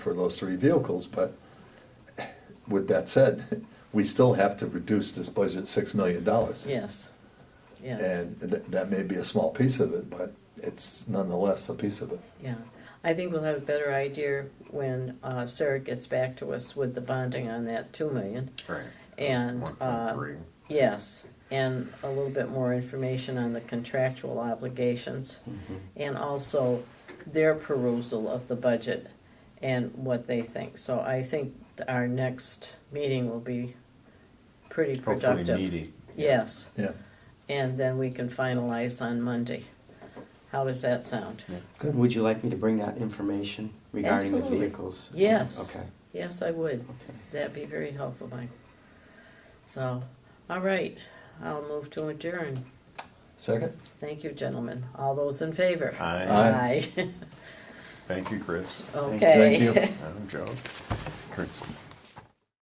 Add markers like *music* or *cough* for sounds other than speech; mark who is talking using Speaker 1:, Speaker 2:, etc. Speaker 1: for those three vehicles, but with that said, *laughs* we still have to reduce this budget six million dollars.
Speaker 2: Yes, yes,
Speaker 1: And that, that may be a small piece of it, but it's nonetheless a piece of it.
Speaker 2: yeah. I think we'll have a better idea when uh, Sarah gets back to us with the bonding on that two million.
Speaker 3: Right.
Speaker 2: And,
Speaker 3: One
Speaker 2: uh,
Speaker 3: point three.
Speaker 2: yes, and a little bit more information on the contractual obligations.
Speaker 3: Mm-hmm.
Speaker 2: And also their perusal of the budget and what they think. So I think our next meeting will be pretty
Speaker 3: Hopefully
Speaker 2: productive.
Speaker 3: meaty.
Speaker 2: Yes,
Speaker 1: Yeah,
Speaker 2: and then we can finalize on Monday. How does that sound?
Speaker 1: Good.
Speaker 4: Would you like me to bring that information regarding the
Speaker 2: Absolutely.
Speaker 4: vehicles?
Speaker 2: Yes.
Speaker 4: Okay,
Speaker 2: Yes, I would.
Speaker 4: okay.
Speaker 2: That'd be very helpful, Mike. So, all right, I'll move to adjourn.
Speaker 1: second?
Speaker 2: Thank you, gentlemen. All those in favor?
Speaker 3: Aye.
Speaker 2: *laughs*
Speaker 1: Aye.
Speaker 3: Thank you, Chris.
Speaker 2: Okay. *laughs*
Speaker 1: Thank you.
Speaker 3: I'm Joe. Chris.